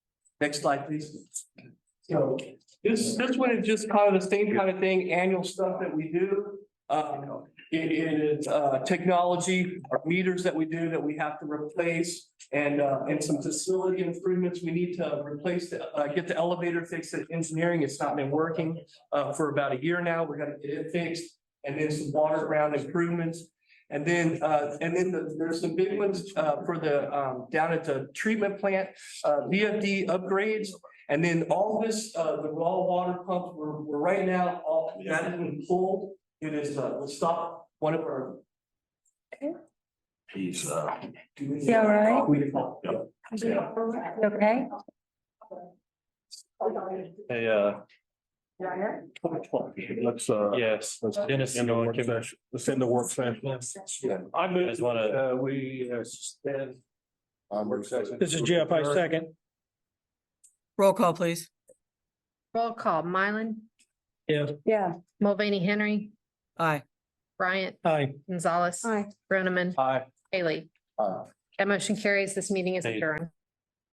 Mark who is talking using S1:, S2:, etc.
S1: Next slide, please.
S2: So this, this one is just kind of the same kind of thing, annual stuff that we do. Um, it- it is, uh, technology, our meters that we do that we have to replace. And, uh, and some facility improvements. We need to replace, the- uh, get the elevator fixed at engineering. It's not been working, uh, for about a year now. We're gonna get it fixed. And then some water ground improvements. And then, uh, and then the- there's some big ones, uh, for the, um, down at the treatment plant, uh, VFD upgrades. And then all this, uh, the raw water pumps, we're, we're right now, all, that has been pulled. It is, uh, we'll stop one of our.
S1: He's, uh,
S2: Is
S3: Yeah, right.
S1: Yeah.
S3: You Okay,
S4: Hey, uh,
S5: Let's, uh,
S4: yes,
S5: let's
S4: Dennis.
S5: end the
S4: Nolan
S5: work
S4: came-
S5: session. Let's end the work session.
S4: I just wanna,
S5: Uh, we, uh, stand.
S6: This is Jeff, I second.
S7: Roll call, please.
S8: Roll call, Mylan,
S6: Yes.
S3: yeah,
S8: Mulvaney Henry,
S7: Aye.
S8: Bryant,
S6: Aye.
S8: Gonzalez,
S3: Aye.
S8: Groneman,
S4: hi,
S8: Haley. That motion carries. This meeting is
S4: Hey.
S8: adjourned.